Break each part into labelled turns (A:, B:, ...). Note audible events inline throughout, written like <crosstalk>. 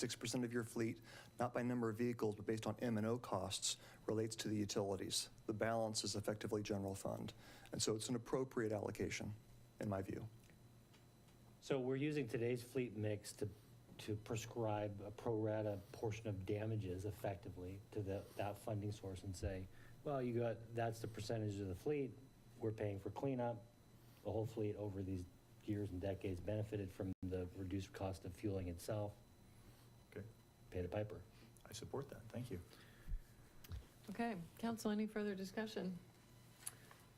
A: 6% of your fleet, not by number of vehicles, but based on M and O costs, relates to the utilities. The balance is effectively general fund. And so it's an appropriate allocation, in my view.
B: So we're using today's fleet mix to, to prescribe a pro rata portion of damages effectively to the, that funding source and say, well, you got, that's the percentage of the fleet, we're paying for cleanup. The whole fleet over these years and decades benefited from the reduced cost of fueling itself,
C: Okay,
B: pay the piper.
C: I support that, thank you.
D: Okay, council, any further discussion?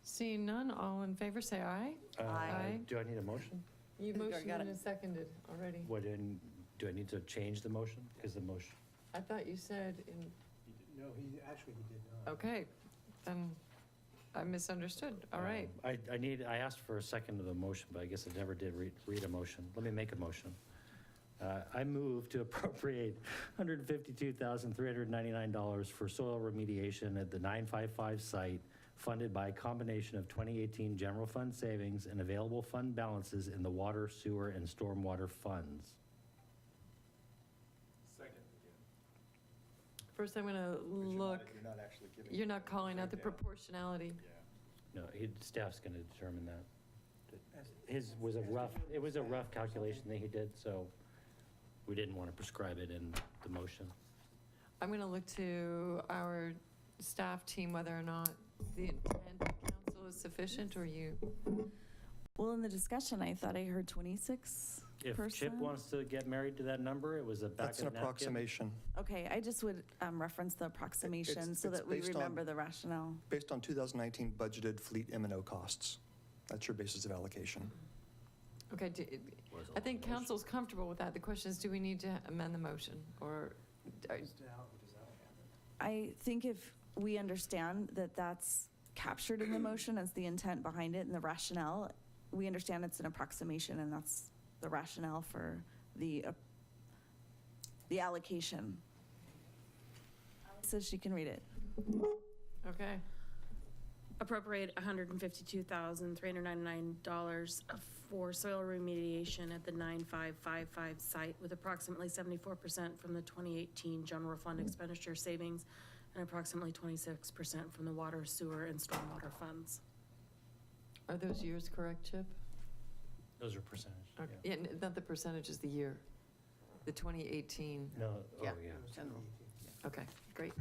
D: Seeing none, all in favor, say aye.
B: Uh,
D: Aye.
B: Do I need a motion?
D: You
E: You already
D: motioned
E: got
D: and
E: it.
D: seconded already.
B: What, in- do I need to change the motion? Because the motion,
D: I thought you said in,
F: No, he, actually, he did not.
D: okay, then I misunderstood. All right,
B: Um, I, I need, I asked for a second of the motion, but I guess I never did read, read a motion. Let me make a motion. Uh, I move to <laughs> appropriate $152,399 for soil remediation at the 955 site funded by a combination of 2018 general fund savings and available fund balances in the water, sewer, and stormwater funds.
D: first I'm going to look,
C: not actually giving.
D: you're not calling out the proportionality.
B: No, he- staff's going to determine that. His was a rough, it was a rough calculation that he did, so we didn't want to prescribe it in the motion.
D: I'm going to look to our staff team whether or not the intent of council is sufficient or you,
E: Well, in the discussion, I thought I heard 26%.
B: If Chip wants to get married to that number, it was a back
A: That's an
B: of napkin.
A: approximation.
E: Okay, I just would um, reference the approximation so
A: it's
E: that we
A: based on-
E: remember the rationale.
A: Based on 2019 budgeted fleet M and O costs. That's your basis of allocation.
D: okay, do- I think council's comfortable with that. The question is, do we need to amend the motion or are-
F: Just out, does that happen?
E: I think if we understand that that's captured
D: <clears throat>
E: in the motion as the intent behind it and the rationale, we understand it's an approximation and that's the rationale for the, uh, the allocation. So she can read it.
D: okay?
G: appropriate $152,399 for soil remediation at the 9555 site with approximately 74% from the 2018 general fund
C: Mm-hmm.
G: expenditure savings and approximately 26% from the water, sewer, and stormwater funds.
D: Are those years correct, Chip?
B: Those are percentage.
D: Okay.
B: yeah.
D: Yeah, n- not the percentage, is the year, the 2018.
B: No, oh,
D: Yeah.
B: yeah.
F: General.
D: Okay, great.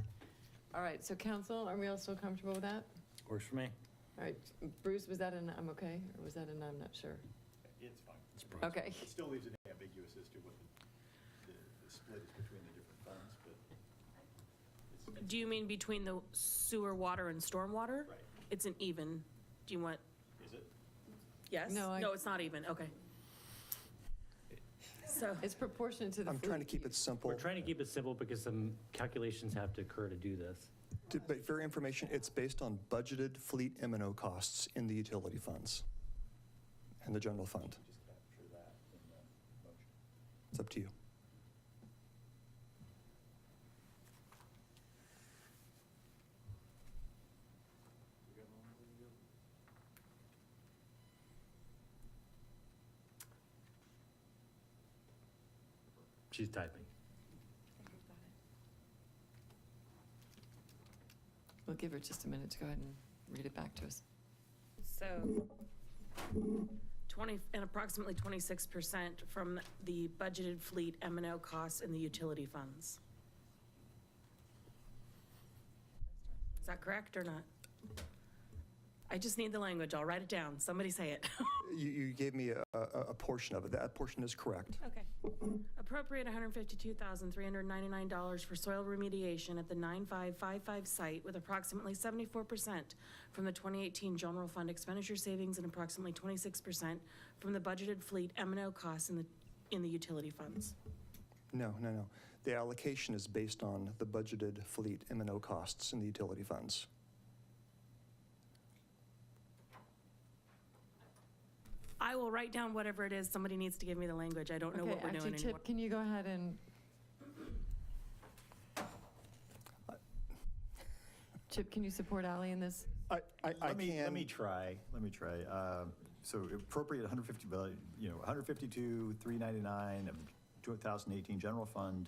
D: All right, so council, are we all still comfortable with that?
B: Works for me.
D: All right, Bruce, was that an I'm okay, or was that an I'm not sure?
C: It's fine.
D: Okay,
C: It still leaves it ambiguous as to what the, the split is between the different funds, but
G: Do you mean between the sewer, water, and stormwater?
C: Right.
G: It's an even. Do you want,
C: is it?
G: yes?
D: No, I-
G: No, it's not even, okay. So.
D: it's proportionate to the.
A: I'm trying to
D: fleet
A: keep it
D: use.
A: simple.
B: We're trying to keep it simple because some calculations have to occur to do this.
A: To- But for your information, it's based on budgeted fleet M and O costs in the utility funds and the general fund.
C: Just capture that in the motion.
A: It's up to you.
B: She's typing.
D: We'll give her just a minute to go ahead and read it back to us.
G: So 20, and approximately 26% from the budgeted fleet m and O costs and the utility funds. Is that correct or not? I just need the language. I'll write it down. Somebody say it.
A: You, you gave me a, a, a portion of it. That portion is correct.
G: Okay. Appropriate $152,399 for soil remediation at the 9555 site with approximately 74% from the 2018 general fund expenditure savings and approximately 26% from the budgeted fleet m and O costs in the, in the utility funds.
A: No, no, no. The allocation is based on the budgeted fleet M and O costs in the utility funds.
G: I will write down whatever it is. Somebody needs to give me the language. I don't know
D: Okay,
G: what we're doing
D: Actually,
G: anymore.
D: Chip, can you go ahead and? Chip, can you support Ally in this?
C: I,
A: I- I
C: let me,
A: can-
C: let me try, let me try. Um, So appropriate 150, billion, you know, 152, 399 of the 2018 general fund Um,